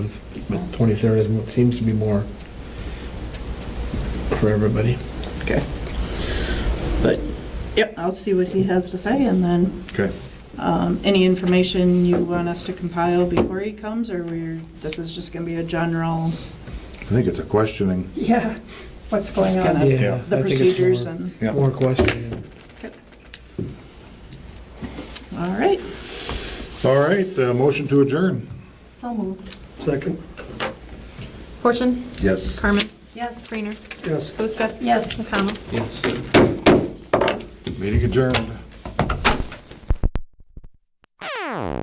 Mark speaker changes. Speaker 1: But twenty-third is, mo- seems to be more for everybody.
Speaker 2: Okay. But, yep, I'll see what he has to say, and then
Speaker 3: Okay.
Speaker 2: um, any information you want us to compile before he comes, or we're, this is just going to be a general,
Speaker 3: I think it's a questioning.
Speaker 4: Yeah, what's
Speaker 2: just
Speaker 4: going
Speaker 2: kind
Speaker 4: on?
Speaker 1: Yeah,
Speaker 2: of the
Speaker 1: I think it's
Speaker 2: procedures
Speaker 1: more-
Speaker 2: and,
Speaker 3: Yeah.
Speaker 1: More questioning.
Speaker 2: all right.
Speaker 3: All right, uh, motion to adjourn.
Speaker 5: So moved.
Speaker 1: Second?
Speaker 5: Portion?
Speaker 3: Yes.
Speaker 5: Carmen? Yes. Creener?
Speaker 1: Yes.
Speaker 5: Buska? Yes. McConnell?
Speaker 1: Yes.
Speaker 3: Meeting adjourned.